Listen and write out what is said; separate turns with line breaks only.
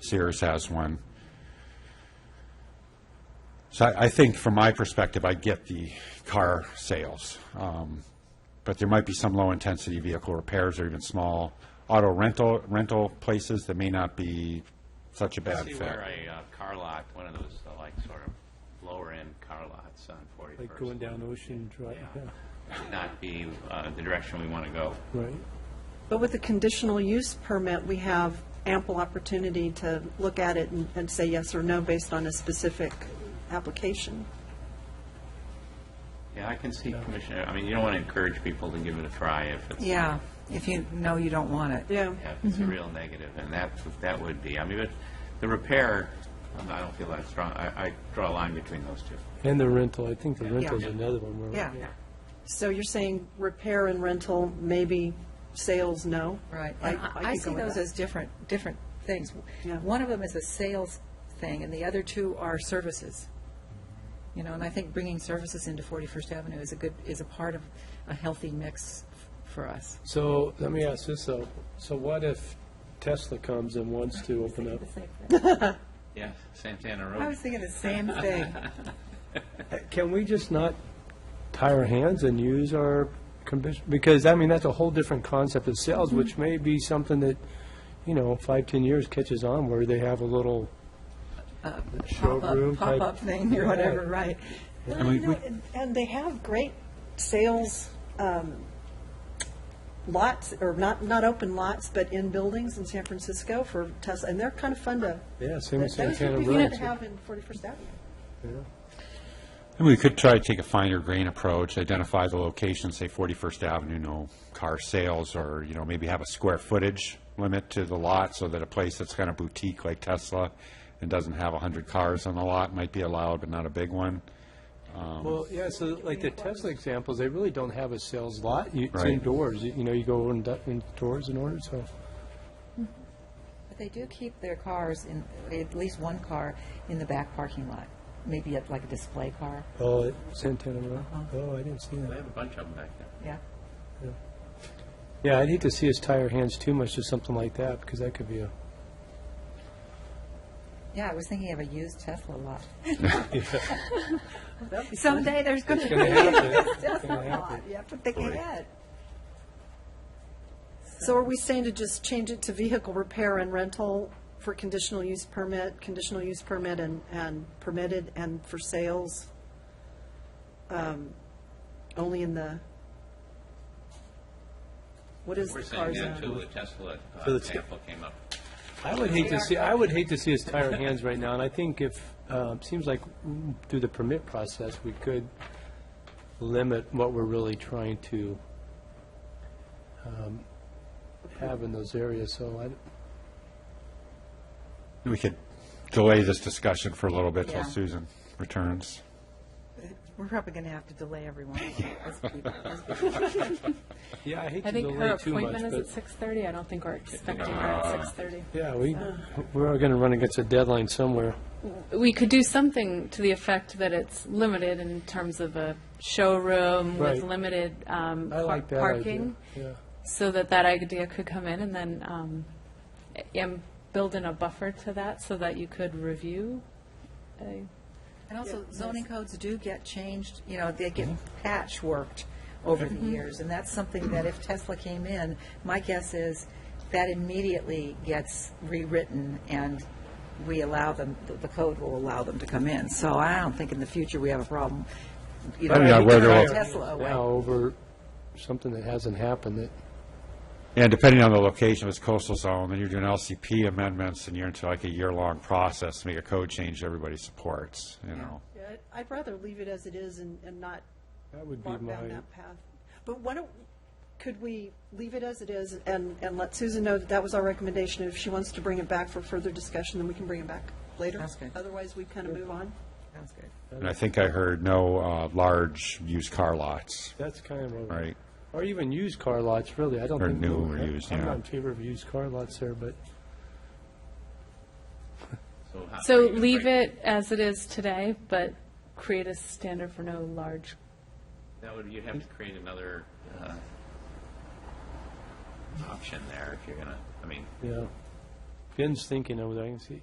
Sears has one. So I, I think from my perspective, I get the car sales. Um, But there might be some low-intensity vehicle repairs or even small auto rental, rental places that may not be such a bad
See
fit.
where a uh, car lot, one of those, uh, like, sort of lower-end car lots on
Like going
41st
down Ocean Drive, yeah,
would not be uh, the direction we want to go.
right.
But with the conditional use permit, we have ample opportunity to look at it and- and say yes or no based on a specific application.
Yeah, I can see Commissioner, I mean, you don't want to encourage people to give it a try if it's,
Yeah, if you know you don't want it.
Yeah.
yeah, if it's
Mm-hmm.
a real negative, and that, that would be, I mean, but the repair, um, I don't feel that strong, I, I draw a line between those two.
And the rental, I think the rental's another one, where-
Yeah,
So you're saying repair and rental, maybe sales, no?
right.
I-
And
I
I I
could
see
go with
those
that.
as different, different things.
Yeah.
One of them is a sales thing, and the other two are services. You know, and I think bringing services into 41st Avenue is a good, is a part of a healthy mix f- for us.
So, let me ask this though, so what if Tesla comes and wants to open up?
Yeah, Santana
I
Road.
was thinking the same thing.
Uh, Can we just not tie our hands and use our commission, because, I mean, that's a whole different concept of sales, which may be something that, you know, five, ten years catches on where they have a little showroom
Uh, Pop-up,
type.
pop-up thing or whatever, right.
And we- we-
And- And they have great sales um, lots, or not, not open lots, but in buildings in San Francisco for Tesla, and they're kind of fun to,
Yeah, same with
those would
Santana
be
Road.
good to have in 41st Avenue.
And we could try to take a finer grain approach, identify the location, say 41st Avenue, no car sales, or, you know, maybe have a square footage limit to the lot so that a place that's kind of boutique like Tesla and doesn't have 100 cars on the lot might be allowed, but not a big one.
Well, yeah, so like the Tesla examples, they really don't have a sales lot. You- It's
Right.
indoors, you you know, you go in- indoors in order, so.
But they do keep their cars in, at least one car in the back parking lot, maybe at like a display car,
Oh, Santana Row? Oh, I didn't see
They
that.
have a bunch of them back there.
yeah.
Yeah, I'd hate to see us tie our hands too much to something like that, because that could be a,
Yeah, I was thinking of a used Tesla lot. Someday there's going to be
gonna
a
happen.
Tesla
gonna
lot. You have to think ahead.
So are we saying to just change it to vehicle repair and rental for conditional use permit, conditional use permit and, and permitted, and for sales? um, Only in the, what is
We're
the
saying
car
that too,
zone?
the Tesla uh,
So it's-
example came up.
I would hate to see, I would hate to see us tie our hands right now, and I think if, um, seems like mm, through the permit process, we could limit what we're really trying to um, have in those areas, so I,
We could delay this discussion for a little bit till
Yeah.
Susan returns.
We're probably going to have to delay everyone. As people- as people-
yeah, I hate
I
to
think her
delay too much,
appointment is at
but,
six thirty. I don't think we're expecting her at six thirty.
yeah, we,
Uh.
we're gonna run against a deadline somewhere.
We could do something to the effect that it's limited in terms of a showroom
Right.
with limited um,
I
par-
like that idea.
parking.
Yeah.
So that that idea could come in and then, um, and build in a buffer to that so that you could review. a-
And also zoning codes do get changed, you know, they get patchworked over the years. And that's something that if Tesla came in, my guess is that immediately gets rewritten and we allow them, the- the code will allow them to come in. So I don't think in the future we have a problem. you know,
I don't know
having
whether
to
we'll-
throw Tesla away.
Now over something that hasn't happened that,
And depending on the location, if it's coastal zone, then you're doing LCP amendments, and you're into like a year-long process to make a code change everybody supports, you know?
Yeah, I'd- I'd rather leave it as it is and, and not
that would be
walk
my,
down that path. But why don't, could we leave it as it is and, and let Susan know that that was our recommendation? If she wants to bring it back for further discussion, then we can bring it back later.
Sounds good.
Otherwise, we kind of move on.
Sounds good.
And I think I heard no uh, large used car lots,
that's kind of my.
right?
Or even used car lots, really, I don't
Or
think.
new
we-
or used,
I'm
yeah.
not in favor of used car lots there, but
how-
So
how you
leave
break-
it as it is today, but create a standard for no large
That would, you'd have to create another uh, option there if you're gonna, I mean,
Yeah. Ben's thinking over there, I can see.